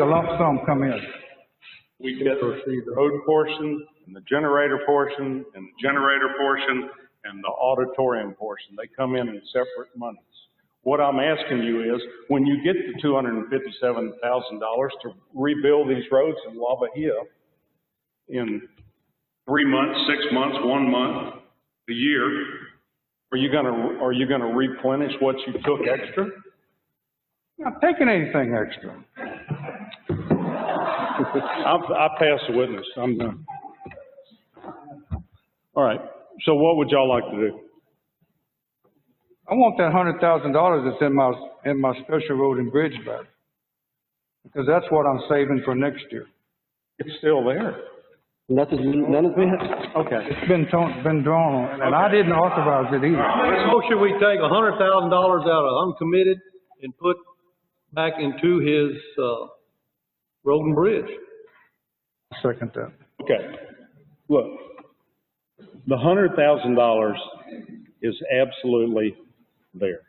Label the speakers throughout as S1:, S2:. S1: the lump sum come in?
S2: We get the road portion, and the generator portion, and the generator portion, and the auditorium portion. They come in in separate monies. What I'm asking you is, when you get the two hundred and fifty-seven thousand dollars to rebuild these roads in La Bahia in three months, six months, one month, a year, are you gonna, are you gonna replenish what you took extra?
S1: Not taking anything extra.
S2: I, I pass the witness, I'm done. All right, so what would y'all like to do?
S1: I want that hundred thousand dollars that's in my, in my special road and bridge back. Because that's what I'm saving for next year.
S2: It's still there.
S3: Nothing's, been- none has been,
S2: Okay.
S1: It's been torn, been drawn on, and I didn't authorize it either.
S4: Make a motion, we take a hundred thousand dollars out of uncommitted and put back into his, uh, road and bridge.
S1: Second that.
S2: Okay, look, the hundred thousand dollars is absolutely there.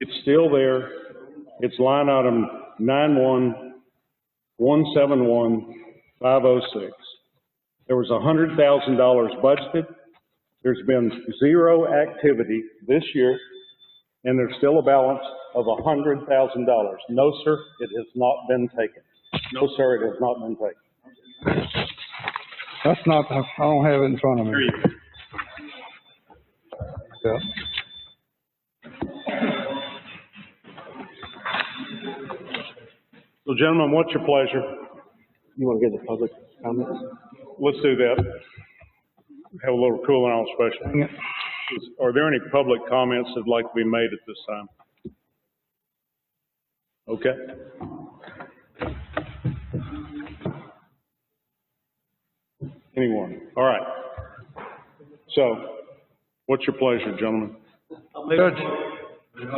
S2: It's still there, it's line item nine one, one seven one, five oh six. There was a hundred thousand dollars budgeted, there's been zero activity this year, and there's still a balance of a hundred thousand dollars. No, sir, it has not been taken. No, sir, it has not been taken.
S1: That's not, I don't have it in front of me. Yeah.
S2: So gentlemen, what's your pleasure?
S3: you want to get the public comments?
S2: Let's do that. Have a little cooling off special.
S1: Yeah.
S2: Is- Are there any public comments that'd like to be made at this time? Okay. Anyone? All right. So what's your pleasure, gentlemen?
S1: Judge,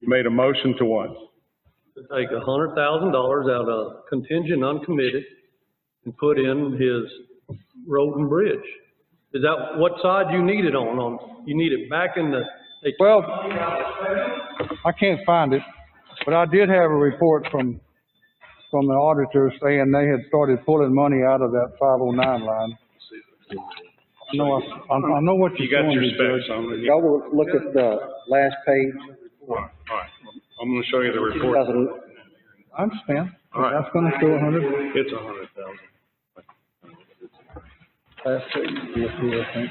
S2: You made a motion to what?
S4: To take a hundred thousand dollars out of contingent uncommitted and put in his road and bridge. Is that what side you need it on, on, you need it back in the, they
S1: well, I can't find it, but I did have a report from, from the auditor saying they had started pulling money out of that five oh nine line. I know, I, I know what
S2: You
S1: you're
S2: got
S1: doing,
S2: your
S1: Judge.
S2: specs on it?
S3: Y'all will look at the last page,
S2: All right. All right. I'm going to show you the report.
S3: 2000
S1: I understand.
S2: All right.
S1: That's gonna show a hundred.
S2: It's a hundred thousand.
S3: last page, yes, here, I think.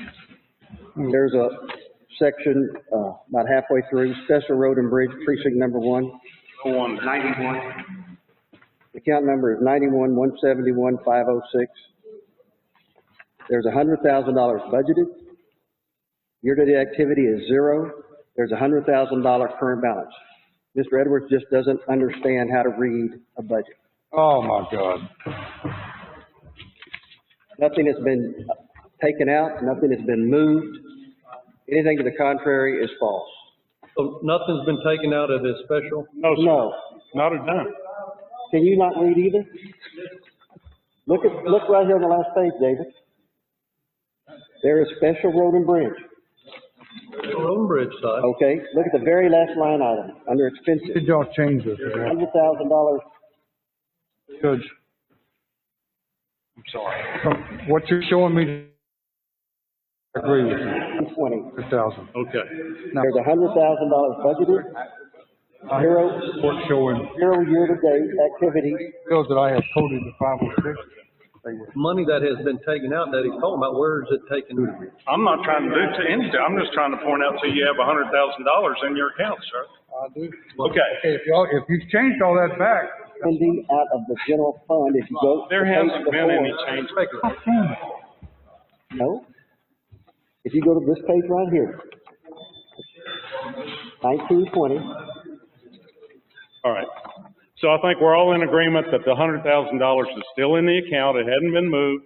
S3: There's a section, uh, about halfway through, special road and bridge precinct number one.
S2: No wonder.
S3: The count number is ninety-one, one seventy-one, five oh six. There's a hundred thousand dollars budgeted. Year-to-date activity is zero. There's a hundred thousand dollar current balance. Mr. Edwards just doesn't understand how to read a budget.
S1: Oh, my God.
S3: Nothing has been taken out, nothing has been moved. Anything to the contrary is false.
S4: so nothing's been taken out of his special?
S2: No,
S3: No.
S2: sir, not a dime.
S3: Can you not read either? Look at, look right here on the last page, David. There is special road and bridge.
S4: Road and bridge side.
S1: Oh.
S3: Okay, look at the very last line item, under expenses,
S1: Did y'all change this?
S3: hundred thousand dollars.
S1: Judge? I'm sorry. What you're showing me, I agree with you,
S3: Twenty.
S1: a thousand.
S2: Okay.
S3: There's a hundred thousand dollars budgeted, zero,
S1: What showing
S3: zero year-to-date activity.
S1: bills that I have coded to five oh six.
S4: Money that has been taken out that he's talking about, where is it taken? out?
S2: I'm not trying to do to anything, I'm just trying to point out to you have a hundred thousand dollars in your account, sir.
S1: I do.
S2: Okay,
S1: If y'all, if you've changed all that back,
S3: Funding out of the general fund, if you go. to
S2: there
S3: page
S2: hasn't been
S3: before-
S2: any change.
S3: No. If you go to this page right here. Nineteen twenty,
S2: All right. So I think we're all in agreement that the hundred thousand dollars is still in the account, it hadn't been moved.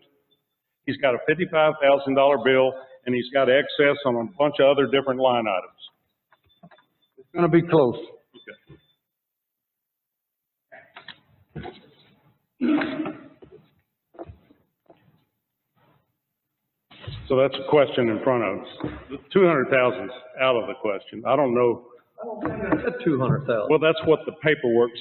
S2: He's got a fifty-five thousand dollar bill, and he's got excess on a bunch of other different line items.
S1: it's gonna be close.
S2: So that's a question in front of us. Two hundred thousand's out of the question. I don't know,
S4: Two hundred thousand.
S2: well, that's what the paperwork